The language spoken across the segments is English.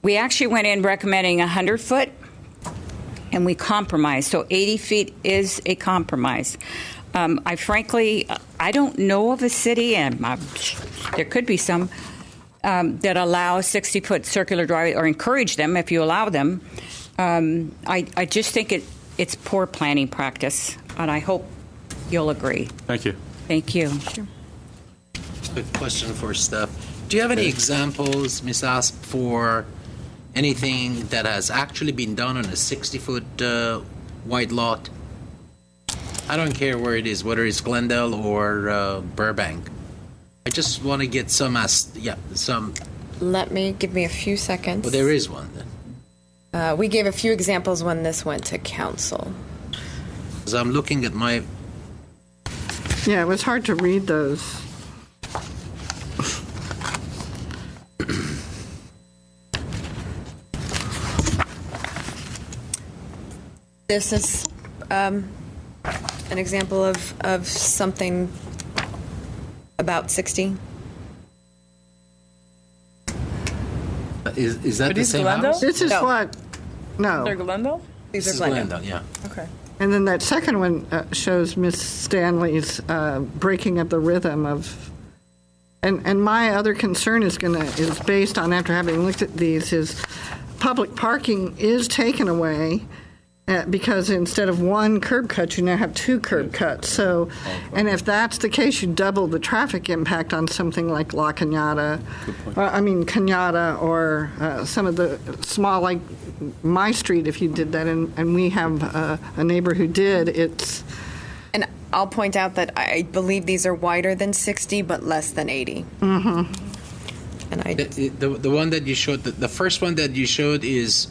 We actually went in recommending 100 foot and we compromised. So 80 feet is a compromise. Um, I frankly, I don't know of a city, and uh, there could be some, um, that allow 60 foot circular drive or encourage them if you allow them. Um, I, I just think it, it's poor planning practice, and I hope you'll agree. Thank you. Thank you. Quick question for Steph. Do you have any examples, Ms. Asp, for anything that has actually been done on a 60 foot uh, wide lot? I don't care where it is, whether it's Glendale or uh, Burbank. I just want to get some, as- yeah, some. Let me give me a few seconds. Well, there is one. Then. Uh, we gave a few examples when this went to council. As I'm looking at my, Yeah, it was hard to read those. This is um, an example of, of something about 60. is, is that It the is same Glendale? house? This is No. what, no. They're Glendale? These This are is Glendale. Glendale, yeah. Okay. And then that second one uh, shows Miss Stanley's uh, breaking of the rhythm of, and, and my other concern is gonna, is based on, after having looked at these, is public parking is taken away uh, because instead of one curb cut, you now have two curb cuts. So, and if that's the case, you double the traffic impact on something like La Cañada, or, I mean, Cañada, or uh, some of the small, like my street, if you did that, and, and we have uh, a neighbor who did, it's, And I'll point out that I believe these are wider than 60, but less than 80. Mm-hmm. And I The, the, the one that you showed, the, the first one that you showed is,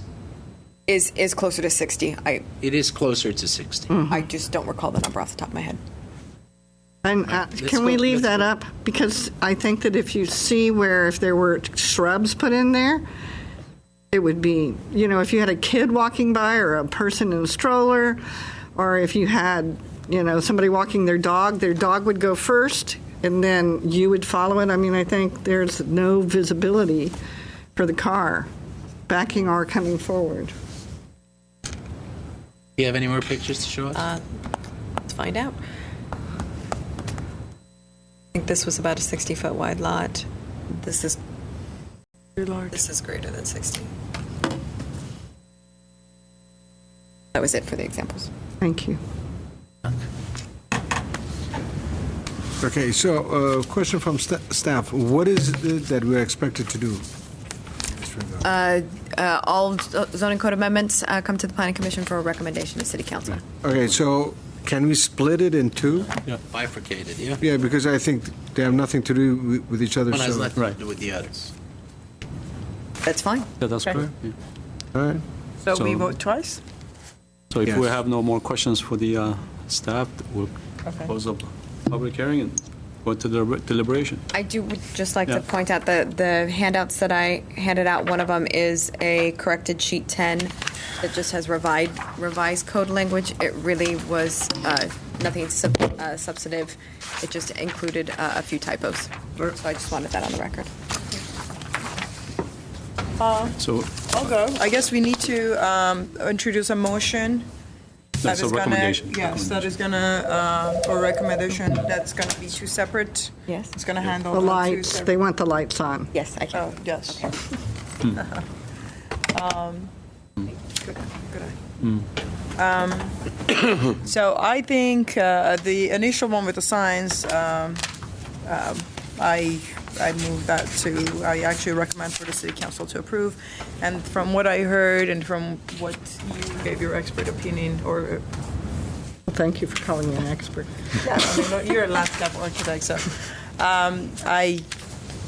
is is closer to 60. I it is closer to 60. Hmm. I just don't recall the number off the top of my head. and uh, Let's can we go- leave let's that up? Because I think that if you see where, if there were shrubs put in there, it would be, you know, if you had a kid walking by or a person in a stroller, or if you had, you know, somebody walking their dog, their dog would go first and then you would follow it. I mean, I think there's no visibility for the car backing or coming forward. Do you have any more pictures to show us? Let's find out. I think this was about a 60 foot wide lot. This is This is greater than 60. That was it for the examples. Thank you. Okay, so uh, question from sta- staff, what is it that we're expected to do? Uh, all z- zoning code amendments uh, come to the planning commission for a recommendation to city council. Okay, so can we split it in two? Bifurcated, yeah. Yeah, because I think they have nothing to do wi- with each other, One has so, nothing to Right. do with the others. That's fine. Yeah, that's Okay. correct. Yeah. all right? So, we So- vote twice? So if we Yes. have no more questions for the uh, staff, we'll Okay. close the public hearing and go to the deliberation. I do would just like Yeah. to point out that the handouts that I handed out, one of them is a corrected sheet 10 that just has revised, revised code language. It really was uh, nothing sub- uh, substantive. It just included uh, a few typos. So I just wanted that on the record. So I'll go. I guess we need to um, introduce a motion. that that's a is gonna- recommendation. Yes, that is gonna, uh, or recommendation, that's gonna be two separate. Yes. It's gonna handle. The two lights, Oh, separate- they want the lights on. Yes, I Oh, can. yes. Um, good eye, Hmm. good eye. Um, So I think uh, the initial one with the signs, um, um, I, I move that to, I actually recommend for the city council to approve. And from what I heard and from what you gave your expert opinion, or, Thank you for calling me an expert. I mean, you're a landscape architect, so um, I,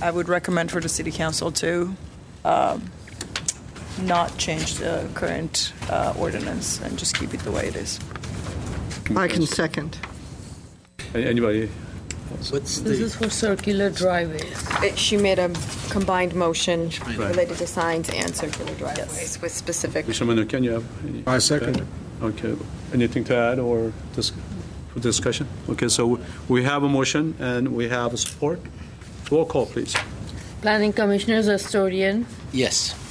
I would recommend for the city council to um, not change the current uh, ordinance and just keep it the way it is. I can second. A- Anybody? What's This is the, for circular driveways. Oh, It- She made a combined motion Right. related to signs and circular driveways with specific. Mr. Manu, can you have? any- I second. Okay, anything to add or dis- for discussion? Okay, so we have a motion and we have a support. Roll call, please. Planning Commissioners Astorian, yes.